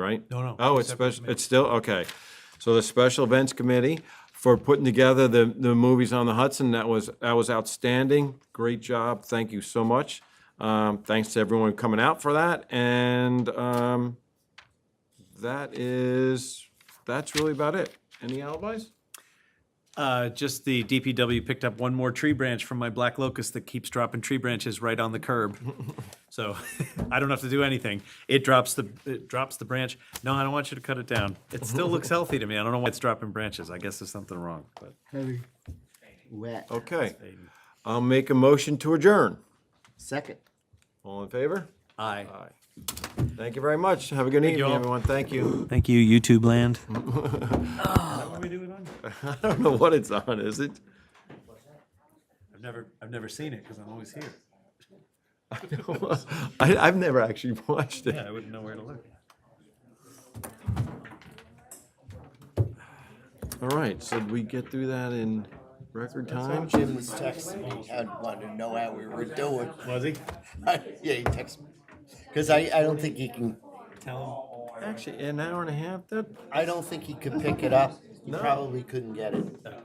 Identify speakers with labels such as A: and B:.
A: right?
B: No, no,
A: Oh, it's
B: separate
A: special, it's still, okay. So the Special Events Committee for putting together the, the movies on the Hudson, that was, that was outstanding. Great job, thank you so much. Um, thanks to everyone coming out for that, and, um, that is, that's really about it. Any alibis?
B: Uh, just the DPW picked up one more tree branch from my black locust that keeps dropping tree branches right on the curb. So I don't have to do anything. It drops the, it drops the branch. No, I don't want you to cut it down. It still looks healthy to me. I don't know why it's dropping branches. I guess there's something wrong, but
C: Heavy. Wet.
A: Okay. I'll make a motion to adjourn.
C: Second.
A: All in favor?
B: I.
A: Thank you very much. Have a good evening,
B: all.
A: everyone. Thank you.
D: Thank you, YouTube land.
A: I don't know what it's on, is it?
B: I've never, I've never seen it because I'm always here.
A: I, I've never actually watched it.
B: Yeah, I wouldn't know where to look.
A: All right, so did we get through that in record time?
C: Jim was texting me, I wanted to know how we were doing.
B: Was he?
C: Yeah, he texted me. Because I, I don't think he can,
B: Tell
A: Actually, an hour and a half, that,
C: I don't think he could pick it up. He
A: No.
C: probably couldn't get it.
B: him.